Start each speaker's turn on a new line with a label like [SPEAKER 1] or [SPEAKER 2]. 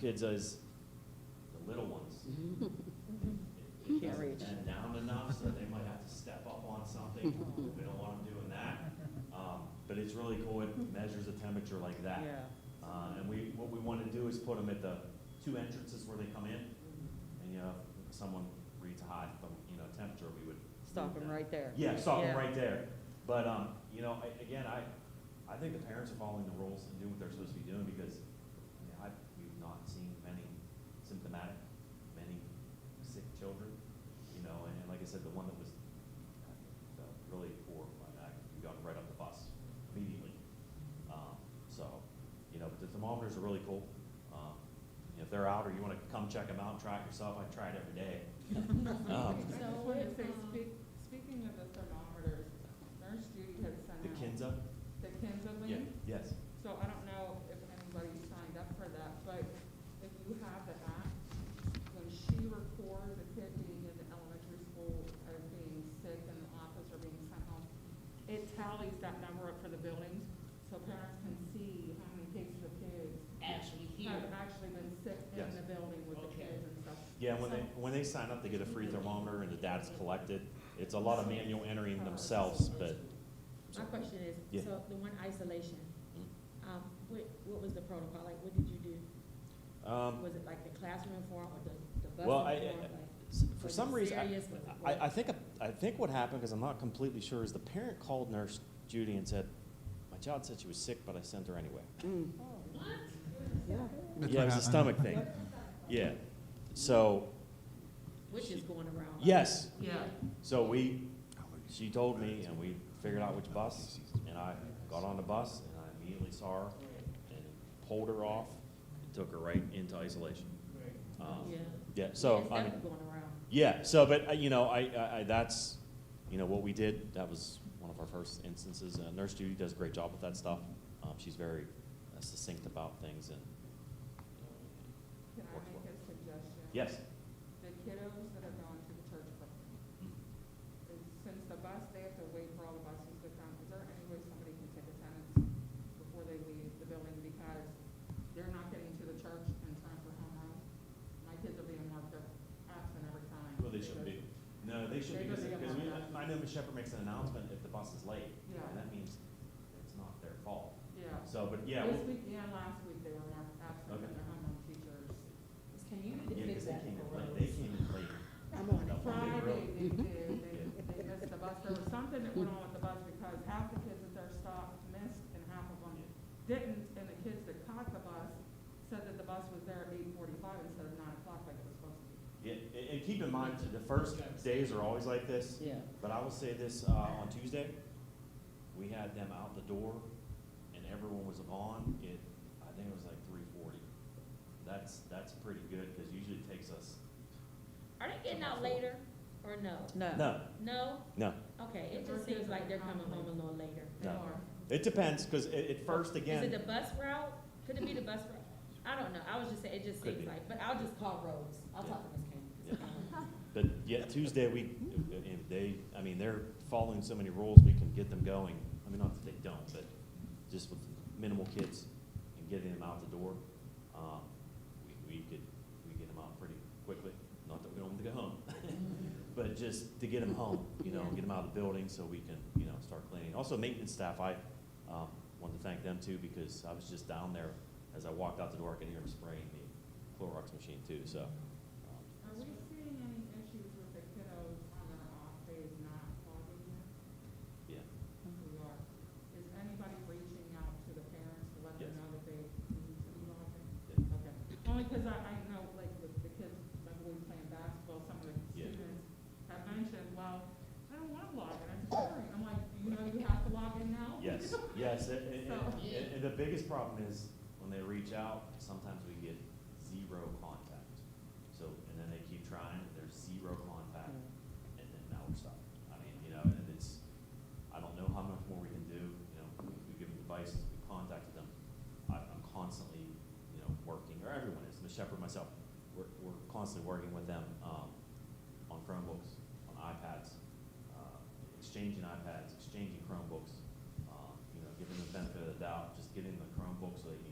[SPEAKER 1] kids as, the little ones, it- it
[SPEAKER 2] Can't
[SPEAKER 1] hasn't
[SPEAKER 2] reach.
[SPEAKER 1] been down enough, so they might have to step up on something. We don't want them doing that. Um, But it's really cool, it measures the temperature like that.
[SPEAKER 2] Yeah.
[SPEAKER 1] Uh, and we, what we wanna do is put them at the two entrances where they come in, and, you know, if someone reads hot, but, you know, temperature, we would.
[SPEAKER 2] Stop
[SPEAKER 1] move
[SPEAKER 2] them right there.
[SPEAKER 1] Yeah, stop them
[SPEAKER 2] Yeah.
[SPEAKER 1] right there. But, um, you know, I, again, I, I think the parents are following the rules and doing what they're supposed to be doing, because, I mean, I, we've not seen many symptomatic, many sick children, you know, and, and like I said, the one that was uh, really poor, I, I, we got right off the bus immediately. Um, so, you know, but the thermometers are really cool. Um, if they're out or you want to come check them out, try it yourself. I try it every day. Um,
[SPEAKER 3] I
[SPEAKER 4] So
[SPEAKER 3] just wanted to say,
[SPEAKER 4] if, um,
[SPEAKER 3] speak, speaking of the thermometers, Nurse Judy had sent
[SPEAKER 1] the
[SPEAKER 3] out
[SPEAKER 1] Kinza?
[SPEAKER 3] the Kinza
[SPEAKER 1] Yeah,
[SPEAKER 3] link.
[SPEAKER 1] yes.
[SPEAKER 3] So I don't know if anybody signed up for that, but if you have the app, when she records a kid being in the elementary school as being sick in the office or being sent home, it tallies that number up for the buildings, so parents can see how many cases of kids
[SPEAKER 4] actually here.
[SPEAKER 3] have actually been sick in
[SPEAKER 1] Yes.
[SPEAKER 3] the building with the
[SPEAKER 4] Okay.
[SPEAKER 3] kids and stuff.
[SPEAKER 1] Yeah, when they, when they sign up, they get a free thermometer and the data's collected. It's a lot of manual entering themselves, but.
[SPEAKER 4] My question
[SPEAKER 1] Yeah.
[SPEAKER 4] is, so the one isolation,
[SPEAKER 1] Mm.
[SPEAKER 4] um, what, what was the protocol, like, what did you do?
[SPEAKER 1] Um,
[SPEAKER 4] Was it like the classroom form or the, the bus
[SPEAKER 1] Well, I-
[SPEAKER 4] form,
[SPEAKER 1] I-
[SPEAKER 4] like?
[SPEAKER 1] s- for
[SPEAKER 4] was
[SPEAKER 1] some
[SPEAKER 4] it
[SPEAKER 1] reason, I-
[SPEAKER 4] serious? Was it
[SPEAKER 1] I, I
[SPEAKER 4] what?
[SPEAKER 1] think, I think what happened, because I'm not completely sure, is the parent called Nurse Judy and said, my child said she was sick, but I sent her anyway.
[SPEAKER 2] Mm,
[SPEAKER 4] oh,
[SPEAKER 2] yeah.
[SPEAKER 5] That's
[SPEAKER 1] Yeah, it
[SPEAKER 5] what
[SPEAKER 1] was a
[SPEAKER 5] happened.
[SPEAKER 1] stomach thing. Yeah. So,
[SPEAKER 4] Which is going around? right?
[SPEAKER 1] yes,
[SPEAKER 3] Yeah.
[SPEAKER 1] so we, she told me and we figured out which bus and I got on the bus and I immediately saw her and pulled her off and took her right into isolation. Um,
[SPEAKER 4] Yeah.
[SPEAKER 1] Yeah, so,
[SPEAKER 4] It's
[SPEAKER 1] I mean,
[SPEAKER 4] definitely going around.
[SPEAKER 1] yeah, so, but, uh, you know, I, I, I- that's, you know, what we did, that was one of our first instances. Uh, Nurse Judy does a great job with that stuff. Um, she's very uh, succinct about things and,
[SPEAKER 3] Can I make a suggestion?
[SPEAKER 1] yes.
[SPEAKER 3] The kiddos that are going to the church program,
[SPEAKER 1] Mm-hmm.
[SPEAKER 3] is- since the bus, they have to wait for all the buses to come, is there any way somebody can take attendance before they leave the building? Because they're not getting to the church in time for homeroom. My kids are being marked up absent every time.
[SPEAKER 1] Well, they shouldn't be. No, they should be, because, because we, I know Ms. Shepherd makes an announcement if the bus is late,
[SPEAKER 3] Yeah,
[SPEAKER 1] and that means it's not their fault.
[SPEAKER 3] yeah.
[SPEAKER 1] So, but yeah,
[SPEAKER 3] This
[SPEAKER 1] we'll-
[SPEAKER 3] week and last week, they were marked absent
[SPEAKER 1] Okay.
[SPEAKER 3] from their homeroom teachers.
[SPEAKER 4] Can you
[SPEAKER 1] yeah, because they came in late, they came in late.
[SPEAKER 2] I'm on
[SPEAKER 1] Now, when they
[SPEAKER 3] Friday,
[SPEAKER 1] really-
[SPEAKER 3] they did, they, they missed the bus, there was something that went on with the bus, because half the kids at their stop missed, and half of them didn't, and the kids that caught the bus said that the bus was there at eight forty-five instead of nine o'clock like it was supposed to be.
[SPEAKER 1] Yeah, and, and keep in mind, the first days are always like this,
[SPEAKER 2] Yeah.
[SPEAKER 1] but I will say this, uh, on Tuesday, we had them out the door, and everyone was on, it, I think it was like three forty. That's, that's pretty good, because usually it takes us,
[SPEAKER 4] Are they getting out later or no?
[SPEAKER 2] No.
[SPEAKER 1] no,
[SPEAKER 4] No?
[SPEAKER 1] no,
[SPEAKER 4] Okay, it just seems like they're coming home a little later.
[SPEAKER 3] They
[SPEAKER 1] No.
[SPEAKER 3] are.
[SPEAKER 1] it depends, because at, at first, again.
[SPEAKER 4] Is it the bus route? Could it be the bus route? I don't know, I was just saying, it just
[SPEAKER 1] Could
[SPEAKER 4] seems
[SPEAKER 1] be.
[SPEAKER 4] like, but I'll just call Rose, I'll talk to Um, Ms. Kane.
[SPEAKER 1] But yet Tuesday, we, if they, I mean, they're following so many rules, we can get them going. I mean, not that they don't, but just with minimal kids and getting them out the door, um, we, we could, we get them out pretty quickly. Not that we don't want them to go home, but just to get them home, you know, get them out of the building so we can, you know, start cleaning. Also maintenance staff, I, um, want to thank them too because I was just down there. As I walked out the door, I could hear them spraying the Clorox machine too, so. um,
[SPEAKER 3] Are we seeing any issues with the kiddos on their off days not logging in?
[SPEAKER 1] Yeah.
[SPEAKER 3] We are. Is anybody reaching out to the parents to let them
[SPEAKER 1] Yes.
[SPEAKER 3] know that they need to be logging?
[SPEAKER 1] Yeah.
[SPEAKER 3] Okay, only because I, I know, like, with the kids, like, we were playing basketball, some of the
[SPEAKER 1] Yeah.
[SPEAKER 3] students have mentioned, well, I don't want to log in, I'm sorry. I'm like, you know, you have to log in now?
[SPEAKER 1] Yes, yes, and, and-
[SPEAKER 3] So-
[SPEAKER 1] and, and the biggest problem is when they reach out, sometimes we get zero contact. So, and then they keep trying, and there's zero contact, and then now we're stuck. I mean, you know, and it's, I don't know how much more we can do, you know, we, we give them advice, we contacted them. I, I'm constantly, you know, working, or everyone is, Ms. Shepherd, myself, we're, we're constantly working with them, um, on Chromebooks, on iPads, uh, exchanging iPads, exchanging Chromebooks, um, you know, giving them the benefit of the doubt, just getting the Chromebook so they